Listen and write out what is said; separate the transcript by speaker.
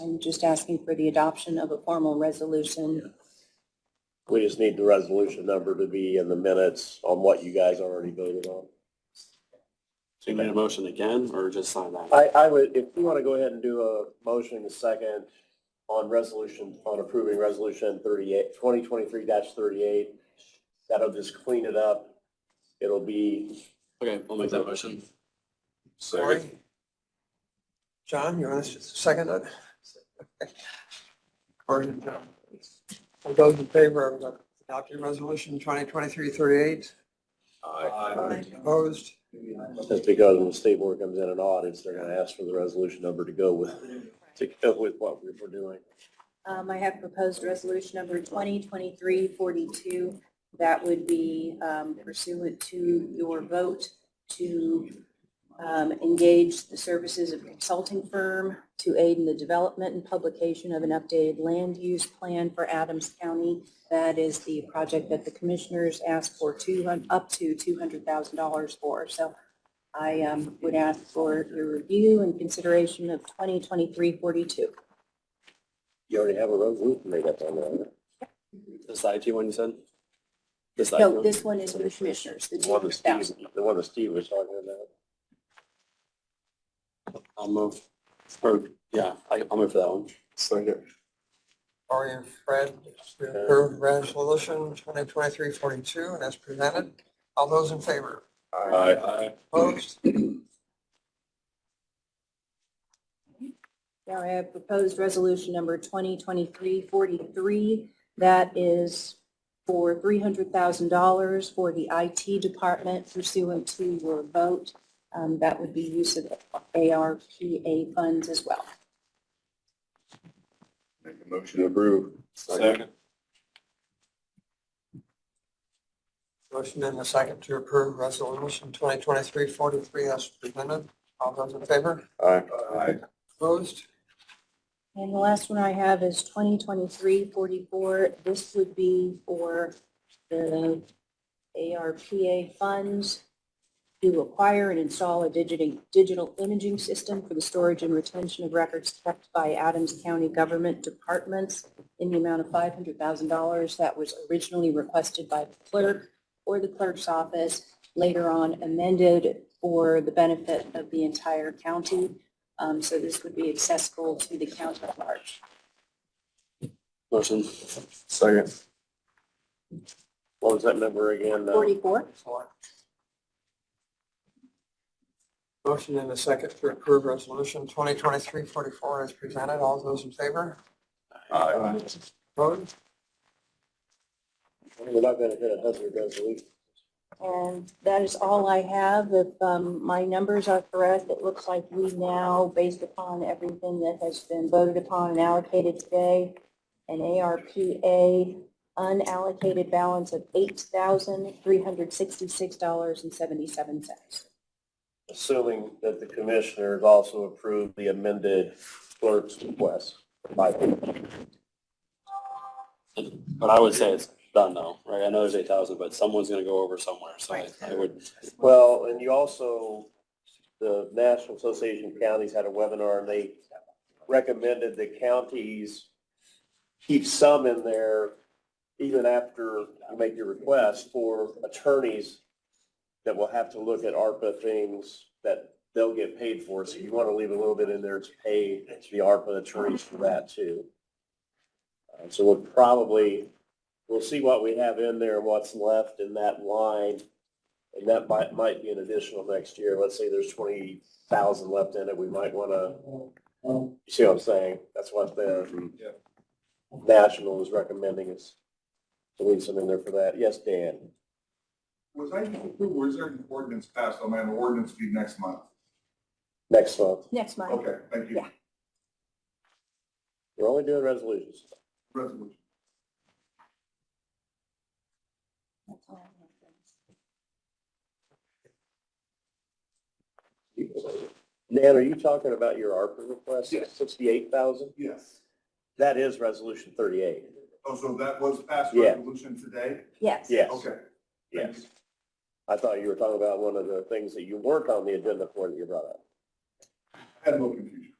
Speaker 1: I'm just asking for the adoption of a formal resolution.
Speaker 2: We just need the resolution number to be in the minutes on what you guys already voted on.
Speaker 3: So you made a motion again, or just sign that?
Speaker 2: I, I would, if you want to go ahead and do a motion in a second on resolution, on approving resolution thirty-eight, twenty twenty-three thirty-eight, that'll just clean it up. It'll be,
Speaker 3: Okay, I'll make that motion.
Speaker 4: Sorry. John, you want us to second it? Or, no. All those in favor of adopting resolution 2023-38? Aye. Opposed?
Speaker 2: just because when the state board comes in and audits, they're gonna ask for the resolution number to go with, to go with what we we're doing.
Speaker 1: Um, I have proposed resolution number 2023-42. That would be um, pursuant to your vote to um, engage the services of a consulting firm to aid in the development and publication of an updated land use plan for Adams County. That is the project that the commissioners asked for two, hun- up to $200,000 for. So I um, would ask for your review and consideration of 2023-42.
Speaker 2: You already have a resolution made up on that.
Speaker 3: This IT one you said? This IT
Speaker 1: No,
Speaker 3: one?
Speaker 1: this one is for the commissioners, the
Speaker 2: The one that
Speaker 1: 200,000.
Speaker 2: Steve, the one that Steve was talking about.
Speaker 3: I'll move. Or, yeah, I- I'll move for that one. Second.
Speaker 4: Are you Fred, to approve resolution 2023-42 and as presented? All those in favor?
Speaker 3: Aye.
Speaker 4: Opposed?
Speaker 1: Now I have proposed resolution number 2023-43. That is for $300,000 for the IT department pursuant to your vote. Um, That would be use of ARPA funds as well.
Speaker 2: Make a motion to approve.
Speaker 3: Second.
Speaker 4: Motion in the second to approve resolution 2023-43 as presented. All those in favor?
Speaker 2: Aye.
Speaker 4: Opposed?
Speaker 1: And the last one I have is 2023-44. This would be for the ARPA funds to acquire and install a digiting- digital imaging system for the storage and retention of records kept by Adams County government departments in the amount of $500,000 that was originally requested by the clerk or the clerk's office, later on amended for the benefit of the entire county. Um, so this would be accessible to the county at large.
Speaker 3: Motion. Second.
Speaker 2: What was that number again? Uh,
Speaker 1: Forty-four?
Speaker 4: Four. Motion in a second to approve resolution 2023-44 as presented. All those in favor?
Speaker 3: Aye.
Speaker 4: Opposed?
Speaker 2: We're not gonna hit a hazard resolution.
Speaker 1: And that is all I have. If um, my numbers are correct, it looks like we now, based upon everything that has been voted upon and allocated today, an ARPA unallocated balance of $8,366.77.
Speaker 2: Assuming that the commissioners also approve the amended clerk's request. By-
Speaker 3: But I would say it's done though, right? I know there's eight thousand, but someone's gonna go over somewhere, so I I would,
Speaker 2: Well, and you also, the National Association of Counties had a webinar and they recommended the counties keep some in there even after you make your request for attorneys that will have to look at ARPA things that they'll get paid for. So you want to leave a little bit in there to pay the ARPA attorneys for that too. Uh, So we'll probably, we'll see what we have in there, and what's left in that line. And that might, might be an additional next year. Let's say there's twenty thousand left in it. We might want to, you see what I'm saying? That's what the national is recommending is to leave some in there for that. Yes, Dan?
Speaker 5: Was I, was there an ordinance passed, I'm an ordinance due next month?
Speaker 2: Next month.
Speaker 1: Next month.
Speaker 5: Okay, thank you.
Speaker 1: Yeah.
Speaker 2: We're only doing resolutions.
Speaker 5: Resolution.
Speaker 1: That's all I have.
Speaker 2: Dan, are you talking about your ARPA request,
Speaker 5: Yes.
Speaker 2: sixty-eight thousand?
Speaker 5: Yes.
Speaker 2: That is resolution thirty-eight.
Speaker 5: Oh, so that was passed
Speaker 2: Yeah.
Speaker 5: resolution today?
Speaker 1: Yes.
Speaker 2: Yes,
Speaker 5: Okay.
Speaker 2: yes. I thought you were talking about one of the things that you weren't on the agenda for that you brought up.
Speaker 5: Had a little confusion.